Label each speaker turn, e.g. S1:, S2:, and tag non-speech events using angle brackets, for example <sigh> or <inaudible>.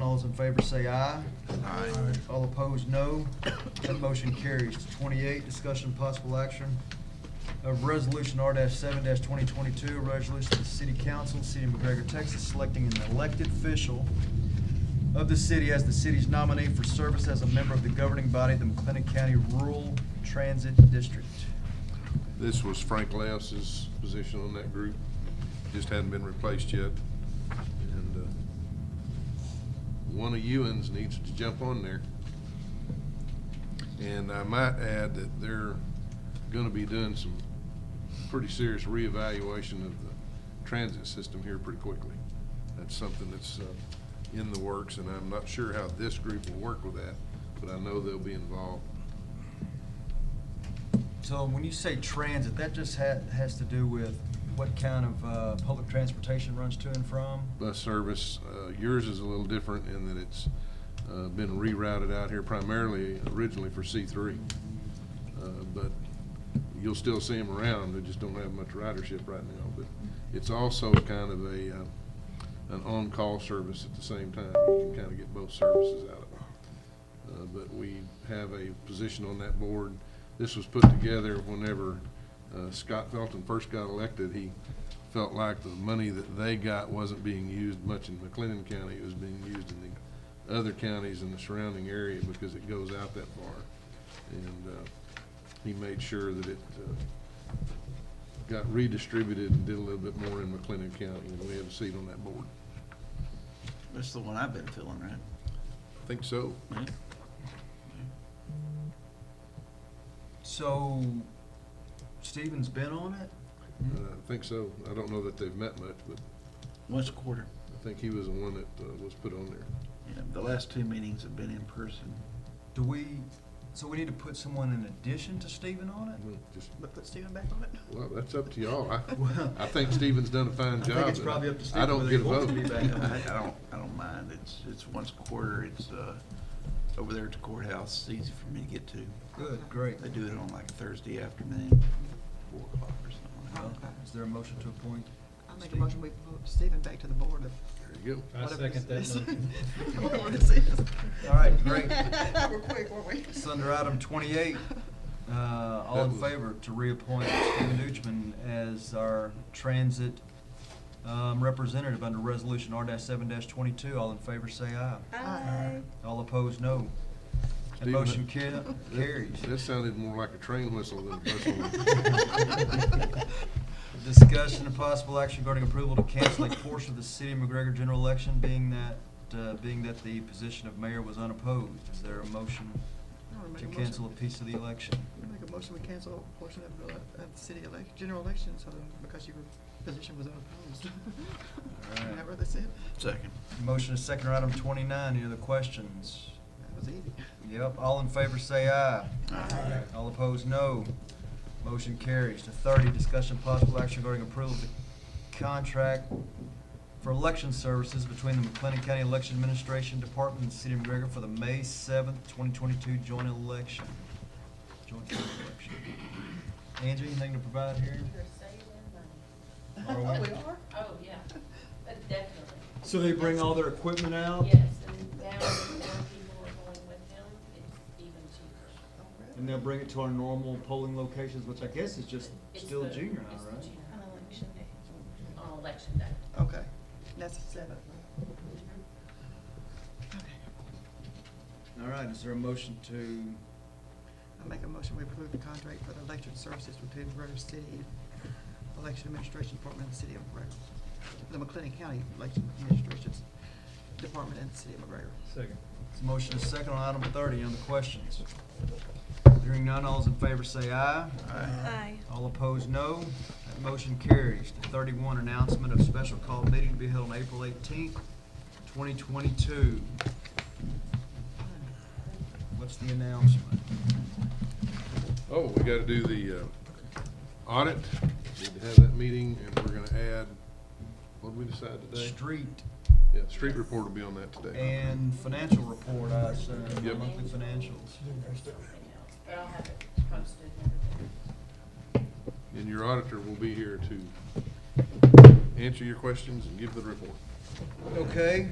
S1: those in favor say aye.
S2: Aye.
S1: All opposed, no. That motion carries. To Twenty-eight, discussion possible action of resolution R seven twenty twenty-two, a resolution of the city council, city of McGregor, Texas, selecting an elected official of the city as the city's nominee for service as a member of the governing body, the McLennan County Rural Transit District.
S2: This was Frank Lass's position on that group, just hadn't been replaced yet. And uh, one of Ewens needs to jump on there. And I might add that they're gonna be doing some pretty serious reevaluation of the transit system here pretty quickly. That's something that's uh, in the works, and I'm not sure how this group will work with that, but I know they'll be involved.
S1: So when you say transit, that just ha- has to do with what kind of, uh, public transportation runs to and from?
S2: bus service. Uh, Yours is a little different in that it's uh, been rerouted out here primarily originally for C3. Uh, But you'll still see them around, they just don't have much ridership right now. But it's also kind of a, uh, an on-call service at the same time. You can kind of get both services out of it. Uh, But we have a position on that board. This was put together whenever uh, Scott Felton first got elected. He felt like the money that they got wasn't being used much in McLennan County. It was being used in the other counties in the surrounding area because it goes out that far. And uh, he made sure that it uh, got redistributed and did a little bit more in McLennan County, and we have a seat on that board.
S3: That's the one I've been feeling, right?
S2: I think so.
S3: Yeah.
S1: So Stephen's been on it? Mm-hmm.
S2: Uh,
S3: Mm-hmm.
S2: I think so. I don't know that they've met much, but
S3: Once a quarter.
S2: I think he was the one that uh, was put on there.
S3: Yeah, the last two meetings have been in person.
S1: Do we, so we need to put someone in addition to Stephen on it?
S2: Well, just-
S3: But put Steven back on it?
S2: Well, that's up to y'all. I,
S1: <laughs> Well-
S2: I think Stephen's done a fine
S1: I
S2: job.
S1: think it's probably up to
S2: I
S1: Stephen
S2: don't
S1: whether
S2: get
S1: he
S2: a
S1: wants
S2: vote.
S1: to be
S3: I, I don't, I don't mind. It's, it's once a quarter. It's, uh, over there at the courthouse. It's easy for me to get to.
S1: Good, great.
S3: They do it on like Thursday afternoon, four o'clock or something
S1: Well,
S3: like that.
S1: Is there a motion to appoint?
S4: I make a motion, we vote Stephen back to the board of
S2: <laughs> There you go.
S5: I
S4: whatever
S5: second that
S4: this is. <laughs>
S5: motion.
S4: Whatever this is.
S1: All right, great.
S4: We're quick, weren't we?
S1: It's under item
S4: <laughs>
S1: twenty-eight. Uh, all
S2: That
S1: in
S2: was-
S1: favor to reappoint Stephen Deutschman as our transit, um, representative under resolution R seven twenty-two. All in favor, say aye.
S4: Aye.
S1: All opposed, no. That
S2: Stephen-
S1: motion ca- carries.
S2: That- That sounded more like a train whistle than a whistle.
S1: <laughs> Discussion and possible action regarding approval to cancel a portion of the city of McGregor general election, being that, uh, being that the position of mayor was unopposed. Is there a motion
S4: I would make
S1: to
S4: a motion.
S1: cancel a piece of the election?
S4: I Make a motion, we cancel a portion of the, uh, of the city elec, general election, so, that- because your position was unopposed.
S1: All right.
S4: Whatever this is,
S3: Second.
S1: Motion is second on item twenty-nine. Any other questions?
S4: that was easy.
S1: Yep, all in favor say aye.
S4: Aye.
S1: All opposed, no. Motion carries. To thirty, discussion possible action regarding approval of the contract for election services between the McLennan County Election Administration Department and the City of McGregor for the May seventh, twenty twenty-two joint election. Joint joint election. Angie, anything to provide here?
S6: You're saving
S1: Are we-
S4: <laughs>
S6: money.
S4: Oh, we are?
S6: Oh, <laughs> yeah, but definitely.
S1: So they bring all their equipment out?
S6: Yes, and now, now people are going with them, it's even cheaper.
S4: Oh, really?
S1: And they'll bring it to our normal polling locations, which I guess is just
S6: It's
S1: still
S6: the-
S1: junior
S6: it's the
S1: high, right?
S6: junior
S7: On election day.
S6: high On election day.
S4: Okay, that's the seventh.
S6: Mm-hmm.
S4: Okay,
S1: All right, is there a motion to,
S4: I make a motion, we approve the contract for the election services between McGregor City Election Administration Department and the City of McGregor. The McLennan County Election Administration Department and the City of McGregor.
S5: Second.
S1: this motion is second on item thirty, any other questions? Hearing none, all's in favor say aye.
S7: Aye.
S1: All opposed, no. That motion carries. The thirty-one announcement of special call meeting to be held on April eighteenth, twenty twenty-two. What's the announcement?
S2: Oh, we gotta do the uh, audit. Need to have that meeting, and we're gonna add, what did we decide today?
S1: Street
S2: Yeah, street report will be on that today.
S1: and financial report, I assume,
S2: Yep.
S1: monthly financials.
S6: Something else, But I'll have it posted and everything.
S2: And your auditor will be here to answer your questions and give the report.
S1: Okay,